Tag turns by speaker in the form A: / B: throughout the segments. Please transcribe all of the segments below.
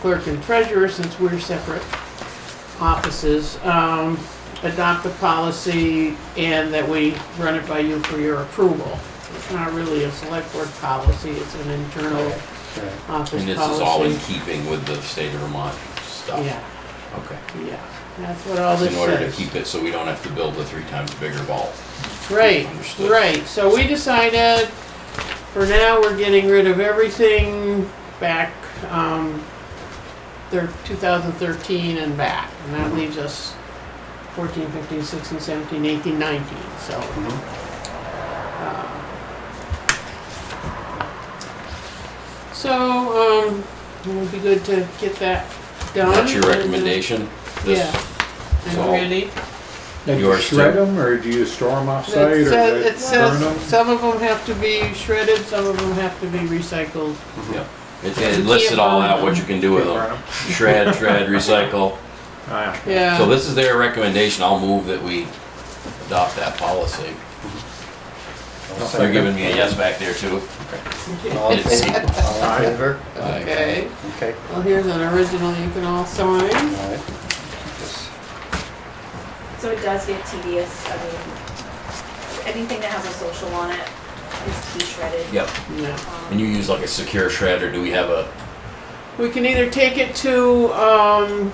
A: clerk and treasurer, since we're separate offices, um, adopt the policy and that we run it by you for your approval. It's not really a select board policy, it's an internal office policy.
B: And this is all in keeping with the state of Vermont stuff?
A: Yeah,
B: Okay.
A: yeah, that's what all this
B: In
A: says.
B: order to keep it so we don't have to build a three times bigger vault.
A: Right,
B: Understood.
A: right, so we decided, for now, we're getting rid of everything back, um, thir two thousand thirteen and back, and that leaves us fourteen, fifteen, sixteen, seventeen, eighteen, nineteen, so. Uh, um, So, um, it would be good to get that done.
B: That's your recommendation? This-
A: Yeah.
B: So-
A: And ready.
C: And
B: Yours
C: you shred
B: too.
C: them, or do you store them
A: It
C: offsite, or
A: sa-
C: do
A: uh, It
C: you burn
A: says,
C: them?
A: some of them have to be shredded, some of them have to be recycled.
B: Yeah. It- It lists it all out, what you can do with
C: Burn
B: them.
C: 'em?
B: Shred, shred, recycle.
C: Ah, yeah.
A: Yeah.
B: So this is their recommendation. I'll move that we adopt that policy. They're giving me a yes back there too.
D: All in favor? All in favor?
B: Aye.
A: Okay,
D: Okay,
A: well, here's an original you can all sign.
D: all right. Just-
E: So it does get tedious, I mean, anything that has a social on it is to be shredded.
B: Yep.
A: Yeah.
E: Um,
B: And you use like a secure shred or do we have a,
A: We can either take it to, um,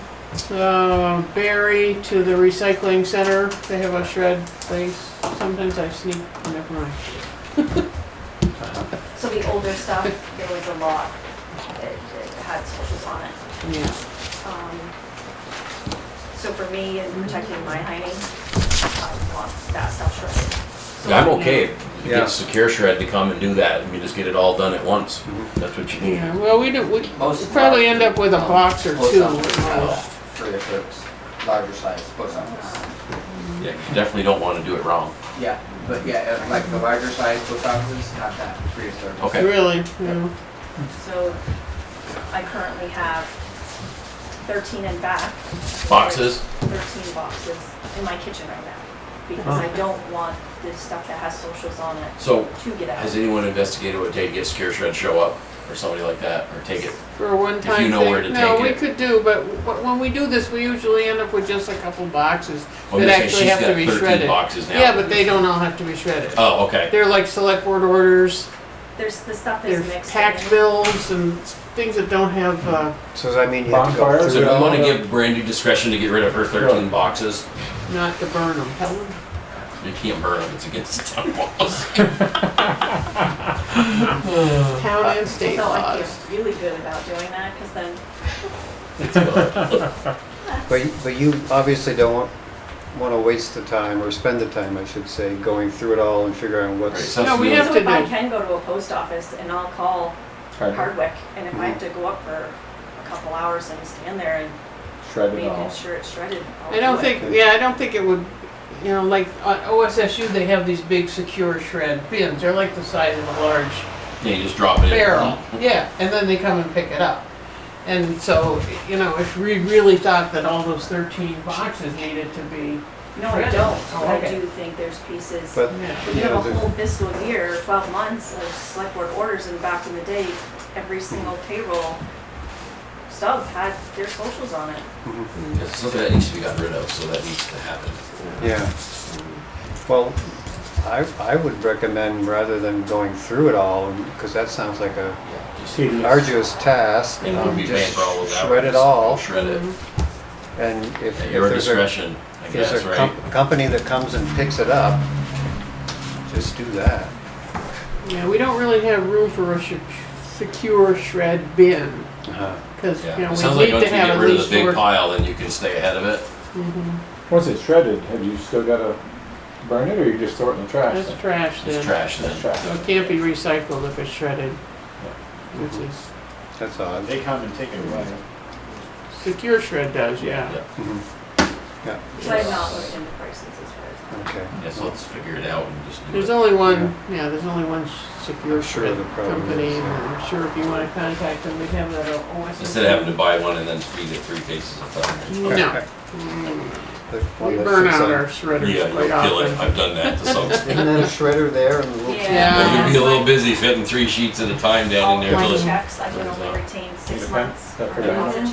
A: uh, Barry, to the recycling center, they have a shred place. Sometimes I sneak, never mind.
E: So Um, the older stuff, there was a lot that that had socials on it.
A: Yeah,
E: Um, So for me, in protecting my hiding, I want that stuff shredded. So
B: I'm okay. if You
D: Yeah.
B: get secure shred to come and do that and you just get it all done at once. That's what you need.
A: yeah, well, we do, we
F: Most of
A: probably
F: our-
A: end up with a
F: um,
A: box or
F: post
A: two.
F: office
A: at
F: have
A: most.
F: Three or four larger size post office.
B: Yeah, you definitely don't want to do it wrong.
F: Yeah, but yeah, uh, like the larger size post offices, not that, three or four.
B: Okay.
A: Really, yeah.
E: So I currently have thirteen and back.
B: Boxes?
E: Thirteen boxes in my kitchen right now, because I don't want the stuff that has socials on it
B: So
E: to get out.
B: has anyone investigated what it take to get secure shred show up or somebody like that or take it?
A: For a one-time
B: If
A: thing?
B: you know where to
A: No,
B: take
A: we
B: it.
A: could do, but wh- when we do this, we usually end up with just a couple boxes
B: I'm
A: that
B: just
A: actually
B: saying
A: have to be
B: Oh, She's got thirteen
A: shredded.
B: boxes now.
A: Yeah, but they don't all have to be shredded.
B: Oh, okay.
A: They're like select board orders,
E: There's, the stuff is
A: they're
E: mixed in.
A: tax bills and s- things that don't have, uh,
D: So does that mean you have to go
C: Bonfires
B: So
D: through
B: we
D: it all?
B: want to give Brandy discretion to get rid of her thirteen boxes.
A: not to burn them. Helen?
B: You can't burn them, it's against the town laws.
A: Town and state
E: So I
A: laws.
E: feel really good about doing that, because then
D: But, you- but you obviously don't want, want to waste the time, or spend the time, I should say, going through it all and figuring out
B: Right,
D: what's.
B: so
A: No, we
B: it's-
A: have
E: So
A: to
E: if I
A: do-
E: can go to a post office and I'll call Hardwick, and if I have to go up for a couple hours and stand there and making sure it's shredded, I'll do
A: I don't
E: it.
A: think, yeah, I don't think it would, you know, like, uh, on OSSU, they have these big secure shred bins. They're like the size of a large
B: Yeah, you just drop it in.
A: barrel, yeah, and then they come and pick it up. And so, you know, if we really thought that all those thirteen boxes needed to be,
E: No, I
A: Shredded.
E: don't,
A: Oh,
E: but I
A: okay.
E: do think there's pieces.
D: But,
A: yeah,
E: We
D: you know,
E: have a
D: the-
E: whole fiscal year, twelve months of select board orders, and back in the day, every single payroll stub had their socials on it.
B: It's something that needs to be gotten rid of, so that needs to happen.
D: yeah. Well, I, I would recommend rather than going through it all, because that sounds like a
B: Just-
D: arduous task.
B: It would
D: um,
B: be bad
D: just
B: for all of that.
D: Shred it all,
B: Shred it,
A: Mm-hmm.
D: and if,
B: at
D: if
B: your
D: there's a,
B: discretion, I
D: if
B: guess,
D: there's a
B: right?
D: com- company that comes and picks it up, just do that.
A: yeah, we don't really have room for a sh- secure shred bin,
D: Uh-huh.
A: because, you
B: Yeah,
A: know,
B: it sounds like
A: we need
B: once
A: to
B: you get
A: have at
B: rid of
A: least
B: the big
A: four. Mm-hmm.
B: pile, then you can stay ahead of it.
C: Once it's shredded, have you still gotta burn it, or you just throw it in the trash?
A: That's trash
B: It's
A: then,
B: trash
C: That's
B: then.
C: trash.
A: so it can't be recycled if it's shredded, which is,
D: That's odd.
G: They come and take it away.
A: secure shred does, yeah.
B: Yeah.
D: Mm-hmm.
E: Which I have not looked into prices as far
D: Okay.
B: Yeah, so let's figure it out and just do it.
A: There's only one, yeah, there's only one s- secure
D: I'm sure
A: shred
D: the problem
A: company,
D: is, uh,
A: and
D: yeah.
A: I'm sure if you wanna contact them, we have that at OSSU.
B: Instead of having to buy one and then feed it three cases of thunder.
A: No.
D: Okay. The one
A: We
D: that
A: burn
D: sits
A: out
D: on-
A: our shredders
B: Yeah, you'll
A: quite
B: kill it.
A: often.
B: I've done that to some.
D: Isn't that a shredder there and a little?
E: as.
A: Yeah.
B: You'd be a little busy fitting three sheets at a time down in
E: All
A: Oh,
B: there.
E: my
B: till it's-
E: checks, I can only retain six six months.
C: That
E: or
C: prevents-
E: deposit